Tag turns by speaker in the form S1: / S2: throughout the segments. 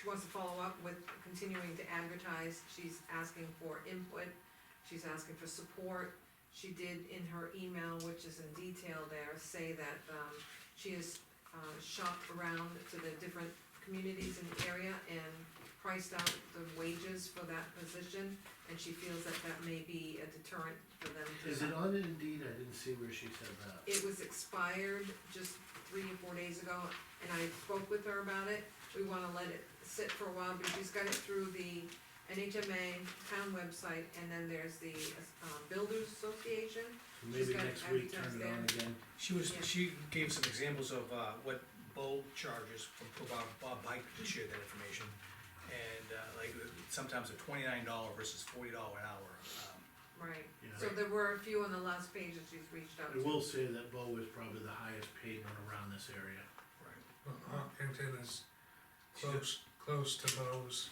S1: she wants to follow up with continuing to advertise, she's asking for input, she's asking for support. She did in her email, which is in detail there, say that, um, she has, uh, shopped around to the different communities in the area and priced out the wages for that position, and she feels that that may be a deterrent for them to.
S2: Is it on Indeed? I didn't see where she said that.
S1: It was expired just three or four days ago, and I spoke with her about it. We wanna let it sit for a while, but she's got it through the NHMA town website, and then there's the, uh, Builders Association.
S2: So Maybe
S1: She's got
S2: next week, turn it on
S1: advertised
S2: again.
S3: She was,
S1: Yeah.
S3: she gave some examples of, uh, what Bo charges from Bob, Bob Pike to share that information. And, uh, like, sometimes a twenty-nine dollar versus forty dollar an hour, um,
S1: Right,
S2: Yeah.
S1: so there were a few on the last page that she's reached out
S2: I
S1: to.
S2: will say that Bo is probably the highest paid one around this area.
S3: right,
S4: Well, Hopkinton Uh-huh. is
S3: She
S4: close, close to Bo's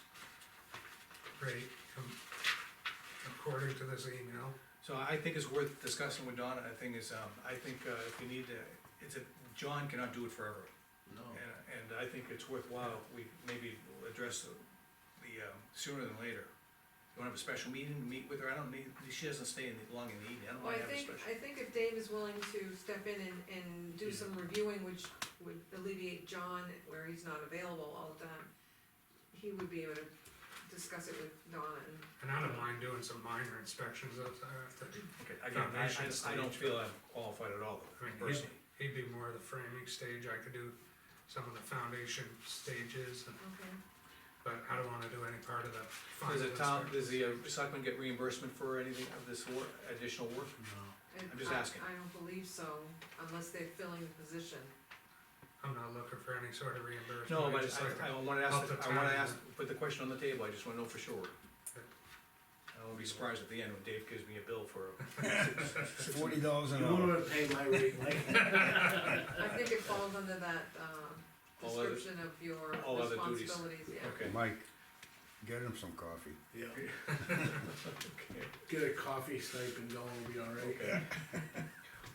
S4: rate, com- according to this email.
S3: So I think it's worth discussing with Donna, I think is, um, I think, uh, if you need to, it's a, John cannot do it forever.
S2: No,
S3: And, and I think it's worthwhile, we maybe address the, the, um, sooner than later. You wanna have a special meeting, to meet with her, I don't need, she doesn't stay in the, long in the evening, Oh, I don't
S1: Well, I
S3: wanna have a
S1: think,
S3: special.
S1: I think if Dave is willing to step in and, and do
S2: Yeah.
S1: some reviewing, which would alleviate John where he's not available all the time, he would be able to discuss it with Donna and
S4: And I don't mind doing some minor inspections of that,
S3: Okay, Again, I, I, I don't
S4: Foundation
S3: feel I'm qualified at all,
S4: I mean, he-
S3: personally.
S4: he'd be more of the framing stage, I could do some of the foundation stages, and-
S1: Okay,
S4: but I don't wanna do any part of the final
S3: Does the town,
S4: inspection.
S3: does the uh, selectmen get reimbursement for anything of this work, additional work?
S2: no.
S1: and
S3: I'm just
S1: I-
S3: asking.
S1: I don't believe so, unless they're filling the position.
S4: I'm not looking for any sort of reimbursement.
S3: No, but
S4: I'd just like to-
S3: I, I wanna ask,
S4: help the
S3: I wanna
S4: town.
S3: ask, put the question on the table, I just wanna know for sure. I won't be surprised at the end when Dave gives me a bill for,
S5: Forty dollars an
S2: You
S5: hour.
S2: wouldn't pay my rate like
S1: I think it falls under that, um,
S3: Uh, All other-
S1: description of your
S3: all other duties.
S1: responsibilities, yeah.
S3: okay.
S5: Mike, get him some coffee.
S2: Yeah,
S3: Okay.
S2: get a coffee stipend going, we'll be all right.
S3: Okay.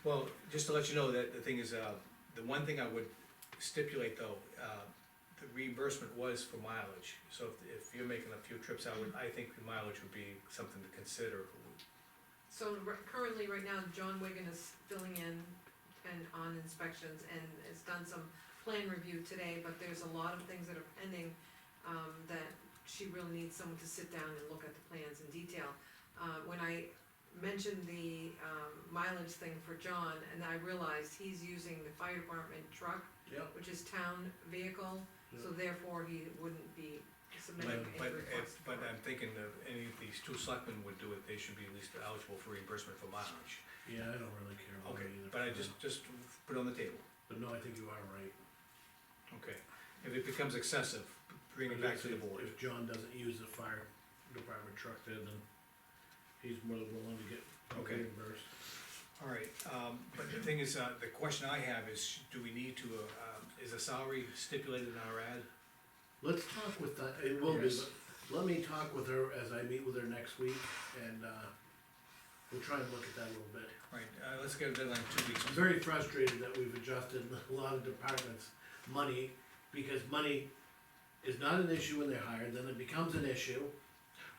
S3: Well, just to let you know that the thing is, uh, the one thing I would stipulate though, uh, the reimbursement was for mileage. So if, if you're making a few trips, I would, I think mileage would be something to consider.
S1: So ri- currently, right now, John Wigan is filling in and on inspections and has done some plan review today, but there's a lot of things that are pending, um, that she really needs someone to sit down and look at the plans in detail. Uh, when I mentioned the, um, mileage thing for John, and I realized he's using the fire department truck,
S2: Yep,
S1: which is town vehicle, so therefore he wouldn't be
S3: But,
S1: submitting
S3: but,
S1: any request.
S3: but I'm thinking that any of these two selectmen would do it, they should be at least eligible for reimbursement for mileage.
S2: yeah, I don't really care about it
S3: Okay,
S2: either.
S3: but I just, just put it on the table,
S2: But no, I think you are right.
S3: okay? If it becomes excessive, bring it back to the
S2: If-
S3: board.
S2: If John doesn't use the fire department truck there, then he's more than willing to get
S3: Okay.
S2: reimbursed.
S3: All right, um, but the thing is, uh, the question I have is, do we need to, uh, um, is a salary stipulated in our ad?
S2: Let's talk with that, it will be,
S3: Yes.
S2: but let me talk with her as I meet with her next week, and, uh, we'll try and look at that a little bit.
S3: Right, uh, let's get a deadline of two weeks.
S2: I'm very frustrated that we've adjusted a lot of departments' money, because money is not an issue when they're hired, then it becomes an issue,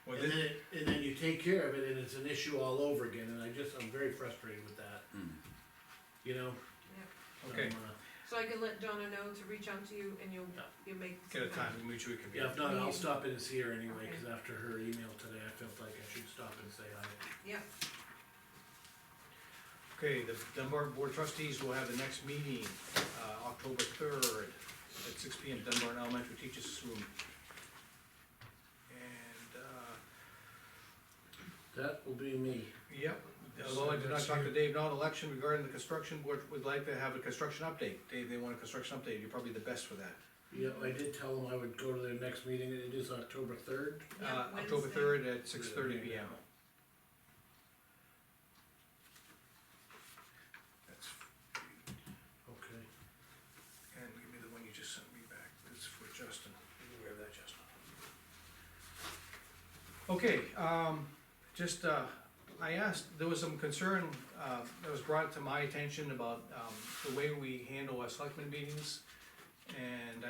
S3: Well,
S2: and
S3: this-
S2: then, it- and then you take care of it, and it's an issue all over again, and I just, I'm very frustrated with that. You know? I'm,
S3: Hmm. Okay,
S2: uh,
S1: So I can let Donna know to reach out to you and you'll,
S2: Yeah.
S1: you'll make.
S3: get a
S1: some
S3: time, mutually
S2: Yeah, if
S3: convenient.
S2: not, I'll
S1: Maybe-
S2: stop in and see her anyway,
S1: Okay.
S2: cause after her email today, I felt like I should stop and say hi.
S1: Yeah,
S3: Okay, the Dunbar Board of Trustees will have the next meeting, uh, October third, at six P M, Dunbar Elementary Teachers Room. And, uh,
S2: That will be me.
S3: yep, although I did not talk to Dave Not election regarding the construction board, would like to have a construction update. Dave, they want a construction update, you're probably the best for that.
S2: Yeah, I did tell them I would go to their next meeting, it is October third.
S1: Yeah,
S3: Uh, October
S1: Wednesday.
S3: third at six thirty P M. That's,
S2: Okay.
S3: and give me the one you just sent me back, that's for Justin, you aware of that, Justin? Okay, um, just, uh, I asked, there was some concern, uh, that was brought to my attention about, um, the way we handle our selectmen meetings. And